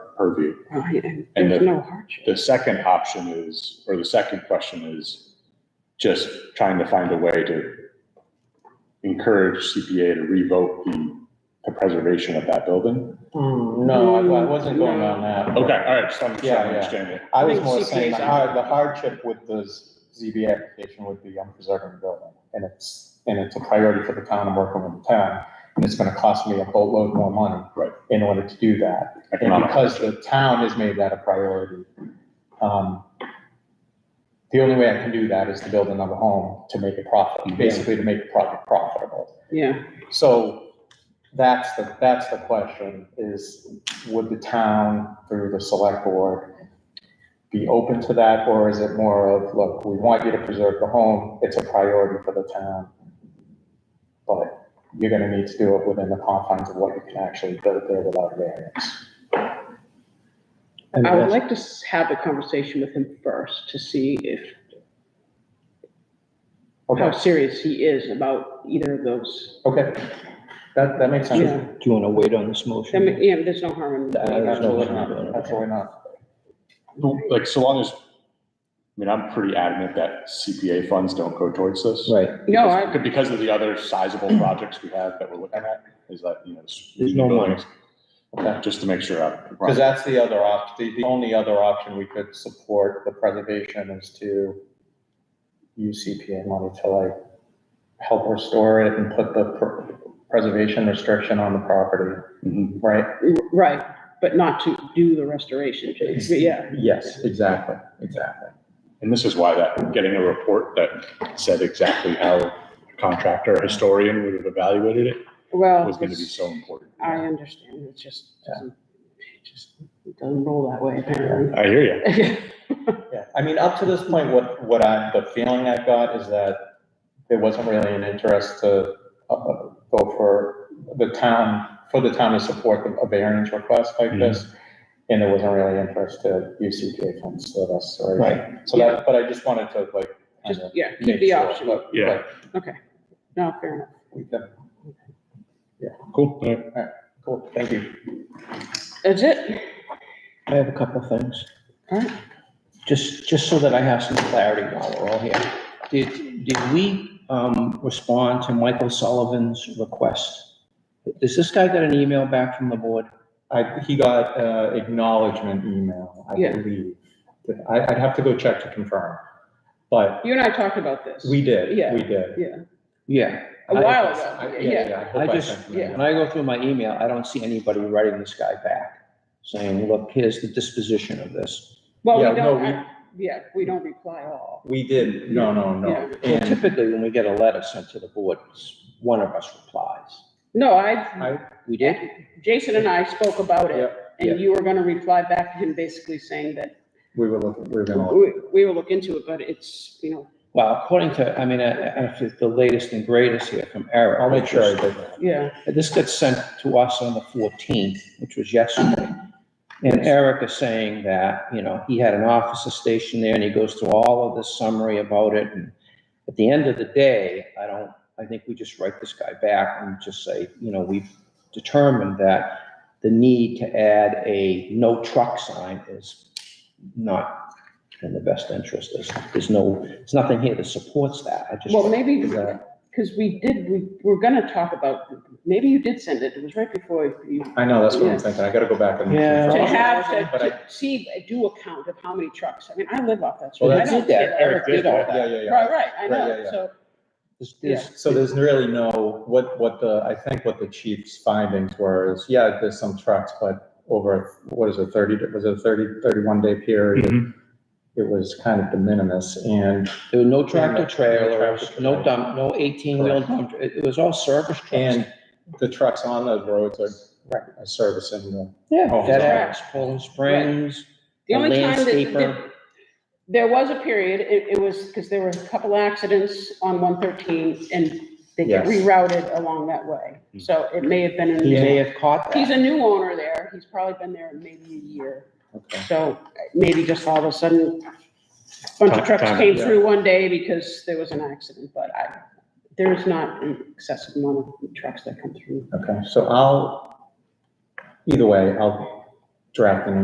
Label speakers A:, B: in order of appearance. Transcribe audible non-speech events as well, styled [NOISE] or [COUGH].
A: purview.
B: Right, and
A: And
B: there's
A: the-
B: no hardship.
A: The second option is, or the second question is just trying to find a way to encourage CPA to revoke the, the preservation of that building.
C: Mm, No, I I wasn't going on that.
A: Okay, all right, just want to
C: Yeah, yeah.
A: understand it.
C: I was
B: think
C: more
B: CPAs
C: saying, the
B: are-
C: har- the hardship with the ZB application would be I'm preserving the building, and it's, and it's a priority for the town, I'm working with the town, and it's gonna cost me a boatload more money.
A: Right. Uh-huh.
C: In order to do that, and
A: Economic
C: because the town has made that a priority, um, the only way I can do that is to build another home to make a profit, basically to make the project profitable.
B: Yeah,
C: So that's the, that's the question, is would the town through the select board be open to that, or is it more of, look, we want you to preserve the home, it's a priority for the town. But you're gonna need to do it within the confines of what you can actually build there without variance. And
B: I would
C: that's-
B: like to s- have the conversation with him first to see if, how
C: Okay,
B: serious he is about either of those.
C: okay, that, that makes sense.
B: Yeah,
D: Do you want to wait on this
B: I mean,
D: motion?
B: yeah, there's no harm
D: I
B: in.
D: don't know.
C: Absolutely not, absolutely not.
A: Like, so long as, I mean, I'm pretty adamant that CPA funds don't go towards this.
D: Right,
B: No, I,
A: Because- Because of the other
D: [CLEARS THROAT]
A: sizable projects we have that we're looking at, is that, you know. s-
D: There's no money.
C: Okay.
A: Just to make sure. I'm-
C: Because that's the other op, the, the only other option we could support the preservation is to use CPA money to like help restore it and put the pr- preservation restriction on the property,
A: Mhm.
C: right?
B: right, but not to do the restoration, Jay, but yeah.
C: Yes, exactly, exactly.
A: And this is why that, getting a report that said exactly how a contractor, or historian would have evaluated it
B: Well,
A: was going to be so important.
B: I understand, it just doesn't, it just doesn't roll that way apparently. [LAUGHS]
A: I hear you.
C: Yeah, I mean, up to this point, what, what I, the feeling I got is that there wasn't really an interest to, uh, uh, go for the town, for the town to support the- a variance request like this. And there wasn't really interest to use CPA funds for this, or.
D: Right.
C: So that, but I just wanted to like.
B: Just,
C: kinda
B: yeah, keep
C: make
B: the
C: sure,
B: option,
C: but-
A: Yeah.
C: but
B: no, fair enough.
C: we can-
A: Cool. All right.
C: Cool, thank you.
B: That's it,
D: I have a couple of things.
B: Alright.
D: Just, just so that I have some clarity while we're all here. Did, did we um, respond to Michael Sullivan's request? Does this guy get an email back from the board?
C: I, he got, uh, acknowledgement email, I
B: Yeah.
C: believe. I, I'd have to go check to confirm, but
B: you and I talked about this.
C: we did,
B: Yeah.
C: we did.
B: Yeah,
D: Yeah.
B: a
D: I-
B: while
C: I-
B: ago,
C: Yeah,
B: Oh, yeah,
C: yeah, I
D: I
C: hope I
D: just,
C: sent you
D: when
C: that.
D: I go through my email, I don't see anybody writing this guy back saying, look, here's the disposition of this.
B: well,
C: Yeah,
B: we
C: no,
B: don't, I- yeah, we don't reply all,
C: We did, no, no, no.
D: Well,
C: And
D: Typically, when we get a letter sent to the board, one of us replies.
B: no, I,
C: I,
D: We did?
B: Jason and I spoke about it,
C: yeah, yeah.
B: and you were gonna reply back to him basically saying that
C: we were looking, we were gonna,
B: we, we will look into it, but it's, you know,
D: Well, according to, I mean, uh, I- I- if it's the latest and greatest here from Eric.
C: I'll make sure I
D: which
C: did that.
B: yeah,
D: was- This got sent to us on the 14th, which was yesterday. And Eric is saying that, you know, he had an officer stationed there and he goes through all of this summary about it. And at the end of the day, I don't, I think we just write this guy back and just say, you know, we've determined that the need to add a no truck sign is not in the best interest. There's, there's no, there's nothing here that supports that. I just.
B: well, maybe,
C: Is that-
B: because we did, we were gonna talk about, maybe you did send it, it was right before you
C: I know, that's what
B: Yeah.
C: I'm thinking, I gotta go back and.
D: Yeah.
B: To
D: Well,
B: have, to-
C: But I-
B: to see, do a count of how many trucks, I mean, I live off that
C: Well,
B: street. I
C: that's-
B: don't
D: did that.
B: care.
D: Eric did all
C: Yeah, yeah, yeah.
B: Right, right, I
C: Right, yeah,
B: know,
C: yeah.
B: so,
D: There's- there's-
C: So there's really no, what, what the, I think what the chief's findings were is, yeah, there's some trucks, but over, what is it, thirty, was it a thirty, thirty-one day period?
A: Mhm.
C: It was kind of de minimis, and,
D: There were no tractor
C: no tractor
D: trailers, no
C: trailers.
D: dump, no eighteen-wheel dump, it, it was all service trucks.
C: and the trucks on the roads are are servicing the.
D: Yeah,
C: Oh,
D: dead
C: sorry.
D: ends, Poland Springs,
B: the
D: a
B: only time that- that,
D: landscaper.
B: there was a period, it, it was, because there were a couple accidents on one thirteen, and they get
C: Yes.
B: rerouted along that way, so it may have been in.
D: he may have caught
B: He's
D: that.
B: a new owner there, he's probably been there maybe a year,
C: Okay.
B: so maybe just all of a sudden, a bunch
A: Time-
B: of trucks
A: time,
B: came
C: yeah.
B: through one day because there was an accident, but I, there's not an excessive amount of trucks that come through.
C: Okay, so I'll, either way, I'll draft an